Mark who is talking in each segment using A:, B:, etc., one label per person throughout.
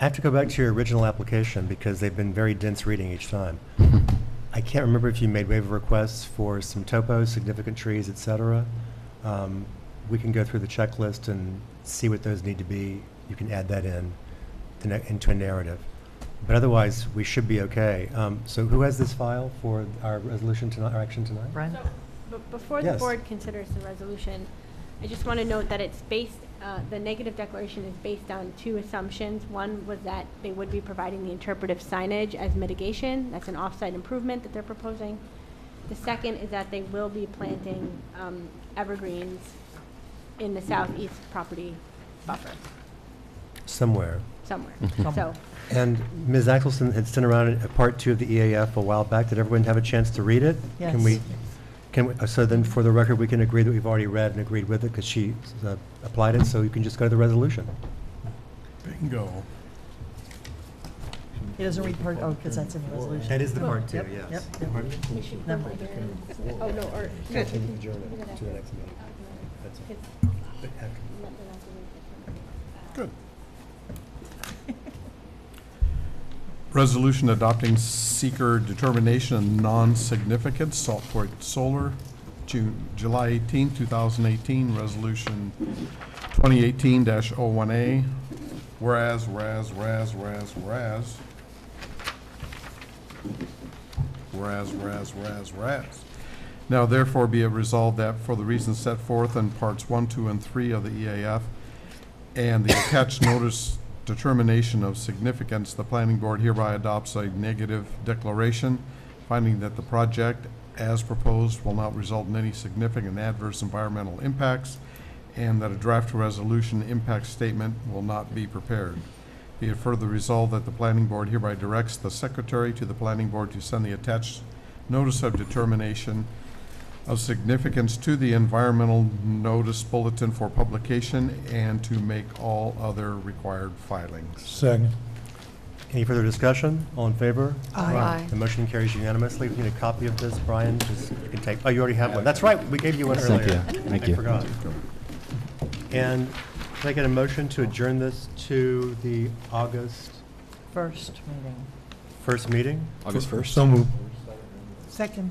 A: I have to go back to your original application because they've been very dense reading each time. I can't remember if you made waiver requests for some topos, significant trees, et cetera. Um, We can go through the checklist and see what those need to be. You can add that in, to na- into a narrative. But otherwise, we should be okay. Um, So who has this file for our resolution tonight, our action tonight?
B: Brian?
C: So, b- Before the
A: Yes.
C: board considers the resolution, I just want to note that it's based, uh, the negative declaration is based on two assumptions. One was that they would be providing the interpretive signage as mitigation, that's an off-site improvement that they're proposing. The second is that they will be planting um, evergreens in the southeast property buffer
A: Somewhere.
C: somewhere.
D: Hmm.
B: Somewhere.
C: So,
A: And Ms. Axelson had sent around a a part two of the EAF a while back. Did everyone have a chance to read it? Can
B: Yes.
A: we, can, we- uh, so then for the record, we can agree that we've already read and agreed with it because she uh, applied it, so you can just go to the resolution.
E: Bingo.
B: He doesn't read part, oh, because that's in the resolution.
A: That is the part two,
B: Yep,
A: yes.
B: yep, yep.
C: we should
B: Never
C: put
B: mind.
C: it in- oh, no, or. no, we can- we can do that.
A: That's all.
C: Because-
A: But after-
E: Good. Resolution adopting seeker determination of non-significant Saltport Solar, June, July 18, 2018, Resolution 2018-01A. Whereas, whereas, whereas, whereas, whereas. Whereas, whereas, whereas, whereas. Now therefore be it resolved that for the reasons set forth in parts one, two, and three of the E EAF and the attached notice determination of significance, the planning board hereby adopts a negative declaration, finding that the project as proposed will not result in any significant adverse environmental impacts and that a draft resolution impact statement will not be prepared. Be it further resolved that the planning board hereby directs the secretary to the planning board to send the attached notice of determination of significance to the environmental notice bulletin for publication and to make all other required filings.
F: Second.
A: Any further discussion? All in favor?
B: Aye. Aye.
A: The motion carries unanimously. We need a copy of this, Brian, just, you can take, oh, you already have one. That's right, we gave you one
D: Thank
A: earlier.
D: you. Thank
A: I
D: you.
A: forgot. And can I get a motion to adjourn this to the August
B: First meeting.
A: first meeting?
D: August 1st?
F: So moved.
B: Second.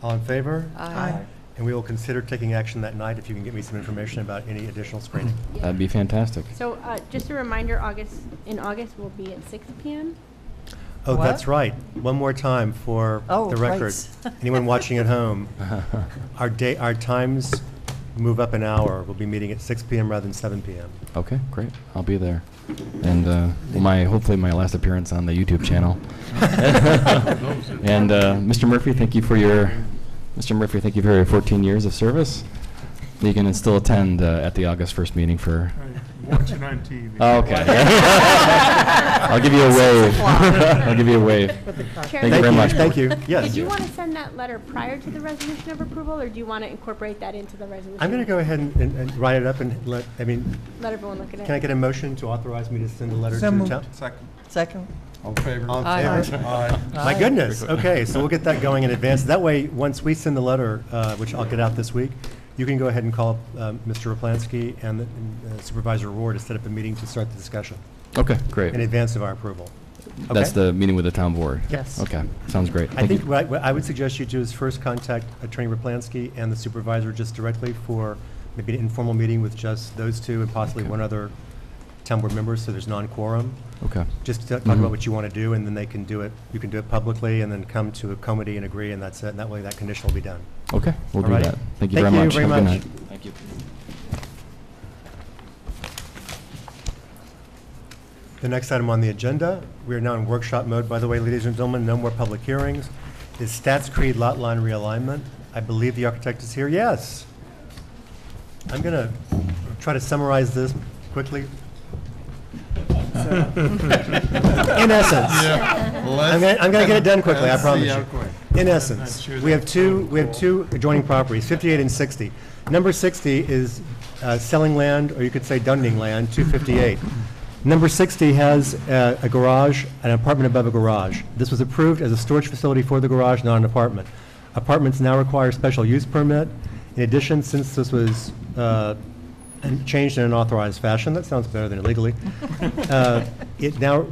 A: All in favor?
B: Aye.
A: And we will consider taking action that night if you can get me some information about any additional screening.
D: That'd be fantastic.
C: So, uh, just a reminder, August, in August, we'll be at six PM.
A: Oh,
B: Mm-hmm. What?
A: that's right. One more time for
B: Oh,
A: the record.
B: rights.
A: Anyone watching at home, our day, our times move up an hour. We'll be meeting at 6 PM rather than 7 PM.
D: Okay, great. I'll be there. And uh, my, hopefully my last appearance on the YouTube channel. And uh, Mr. Murphy, thank you for your, Mr. Murphy, thank you for your 14 years of service. You can still attend uh, at the August 1st meeting for.
F: Watch it on TV.
D: Oh, Okay. I'll give you a wave. I'll give you a wave.
B: With the clock.
C: Chair-
D: Thank you very much.
A: Thank you. Yes.
C: Did you want to send that letter prior to the resolution of approval, or do you want to incorporate that into the resolution?
A: I'm going to go ahead and- and and write it up and let, I mean,
C: Let everyone look at it.
A: can I get a motion to authorize me to send a letter
F: So
A: to the
F: moved.
A: town?
E: Second.
B: Second.
E: All in favor?
A: All in favor?
E: Aye.
A: My
B: Aye.
A: goodness, okay, so we'll get that going in advance. That way, once we send the letter, uh, which I'll get out this week, you can go ahead and call um, Mr. Raplansky and uh, Supervisor Rohr to set up a meeting to start the discussion
D: Okay,
A: in
D: great.
A: advance of our approval.
D: That's
A: Okay?
D: the meeting with the town board.
B: Yes.
D: Okay, sounds great.
A: I
D: Thank
A: think
D: you.
A: what I- what I would suggest you do is first contact Attorney Raplansky and the supervisor just directly for maybe an informal meeting with just those two and possibly
D: Okay.
A: one other town board member, so there's non-quorum.
D: Okay,
A: Just to talk
D: Mhm.
A: about what you want to do, and then they can do it, you can do it publicly, and then come to a comity and agree, and that's it, and that way that condition will be done.
D: okay, we'll do
A: Alrighty.
D: that. Thank you
A: Thank
D: very
A: you
D: much.
A: very
D: Have a
A: much.
D: good night. Thank you.
A: The next item on the agenda, we are now in workshop mode, by the way, ladies and gentlemen, no more public hearings, is Stats Creed Lot Line Realignment. I believe the architect is here, yes. I'm going to try to summarize this quickly. In essence, I'm gonna, I'm gonna get it done quickly, I promise you. In essence, we have two, we have two adjoining properties, 58 and 60. Number 60 is uh, selling land, or you could say donating land, 258. Number 60 has uh, a garage, an apartment above a garage. This was approved as a storage facility for the garage, not an apartment. Apartments now require special use permit. In addition, since this was uh, and changed in an authorized fashion, that sounds better than illegally. Uh, It now,